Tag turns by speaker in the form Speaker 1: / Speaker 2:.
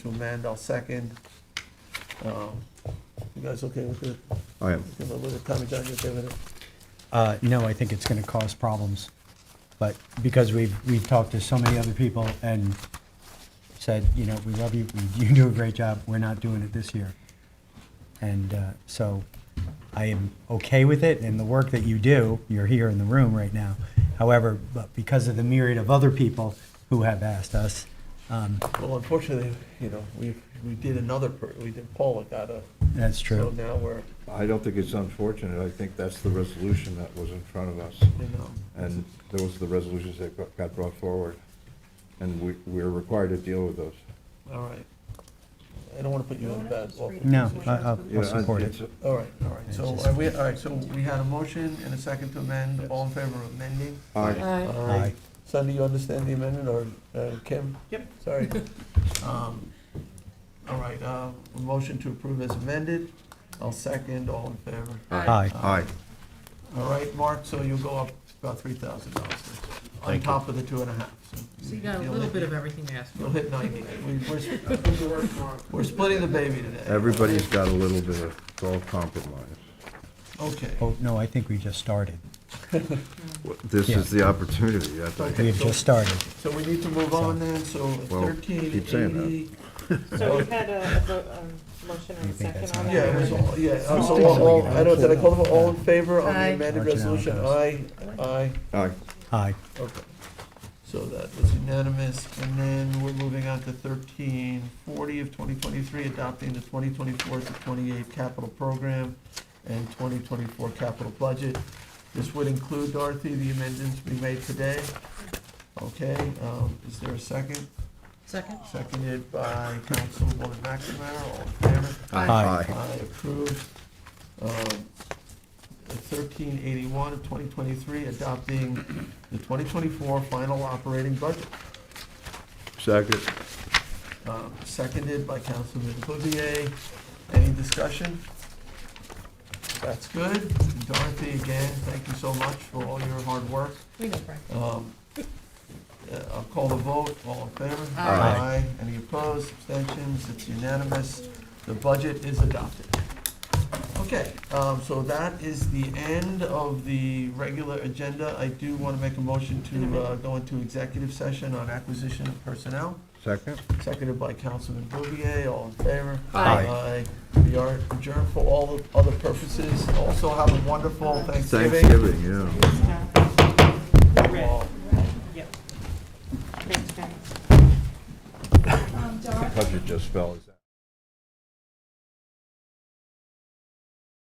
Speaker 1: to amend, I'll second. Um, You guys okay with the,
Speaker 2: I am.
Speaker 1: with the Tommy John, you okay with it?
Speaker 3: Uh, no, I think it's gonna cause problems, but because we've, we've talked to so many other people and said, you know, we love you, we- you do a great job, we're not doing it this year. And, uh, so I am okay with it and the work that you do, you're here in the room right now. However, but because of the myriad of other people who have asked us, um,
Speaker 1: Well, unfortunately, you know, we, we did another, per- we did Paul, it got a,
Speaker 3: that's
Speaker 1: so
Speaker 3: true.
Speaker 1: now we're,
Speaker 2: I don't think it's unfortunate. I think that's the resolution that was in front of us.
Speaker 1: you know.
Speaker 2: And those are the resolutions that got- got brought forward. And we, we're required to deal with those.
Speaker 1: All right. I don't want to put you in a bad. awful
Speaker 3: No, uh, I,
Speaker 1: position.
Speaker 3: I'll,
Speaker 2: You
Speaker 3: I'll
Speaker 2: know, and
Speaker 3: support it.
Speaker 2: it's-
Speaker 1: All right, all right. So
Speaker 3: It's just-
Speaker 1: are we, all right, so we had a motion and a second to amend. All in favor of amending?
Speaker 2: I,
Speaker 3: Aye.
Speaker 1: Sunday, you understand the amendment, or uh, Kim? Yep. Sorry. Um, All right, uh, a motion to approve as amended. I'll second. All in favor? Um,
Speaker 3: Aye.
Speaker 2: aye.
Speaker 1: All right, Mark, so you'll go up about three thousand dollars. On
Speaker 4: Thank you.
Speaker 1: top of the two and a half.
Speaker 5: So you got a
Speaker 1: you'll
Speaker 5: little
Speaker 1: hit-
Speaker 5: bit of everything you asked for.
Speaker 1: You'll hit ninety. We- We're we're splitting the baby today.
Speaker 2: Everybody's got a little bit of, it's all compromise.
Speaker 1: Okay.
Speaker 3: Oh, no, I think we just started.
Speaker 2: This is the opportunity. I
Speaker 3: We
Speaker 2: think.
Speaker 3: have just started.
Speaker 1: So we need to move on then, so
Speaker 2: Well,
Speaker 1: thirteen
Speaker 2: keep saying that.
Speaker 1: eighty.
Speaker 6: So we had a, a vote, um, motion
Speaker 3: You
Speaker 6: and a
Speaker 3: think
Speaker 6: second
Speaker 3: that's
Speaker 6: on
Speaker 3: not
Speaker 6: that.
Speaker 1: Yeah, it was
Speaker 6: right?
Speaker 1: all, yeah, uh, so
Speaker 6: Something
Speaker 1: all, all-
Speaker 3: like
Speaker 1: I don't, did I call for all in
Speaker 3: that.
Speaker 1: favor on the
Speaker 5: Aye.
Speaker 1: amended
Speaker 3: Marginal
Speaker 1: resolution? Aye,
Speaker 3: cost.
Speaker 1: aye,
Speaker 2: Aye.
Speaker 3: Aye.
Speaker 1: okay. So that was unanimous, and then we're moving on to thirteen forty of twenty twenty-three, adopting the twenty twenty-four to twenty-eight capital program and twenty twenty-four capital budget. This would include, Dorothy, the amendments we made today. Okay, um, is there a second?
Speaker 5: Second?
Speaker 1: Seconded by Councilwoman McNamara, all in favor?
Speaker 3: Aye.
Speaker 1: I approve um, thirteen eighty-one of twenty twenty-three, adopting the twenty twenty-four final operating budget,
Speaker 2: Second.
Speaker 1: Um, seconded by Councilman Bouvier. Any discussion? That's good. And Dorothy, again, thank you so much for all your hard work.
Speaker 5: We know, Brian.
Speaker 1: Um, uh, I'll call the vote, all in favor?
Speaker 3: Aye.
Speaker 1: Any opposed, abstentions, it's unanimous, the budget is adopted. Okay, um, so that is the end of the regular agenda. I do want to make a motion to uh, go into executive session on acquisition of personnel,
Speaker 2: Second?
Speaker 1: seconded by Councilman Bouvier, all in favor?
Speaker 2: Aye.
Speaker 1: Aye. We are adjourned for all the other purposes. Also, have a wonderful Thanksgiving.
Speaker 2: Thanksgiving, yeah.
Speaker 1: All.
Speaker 6: Next time.
Speaker 2: The budget just fell.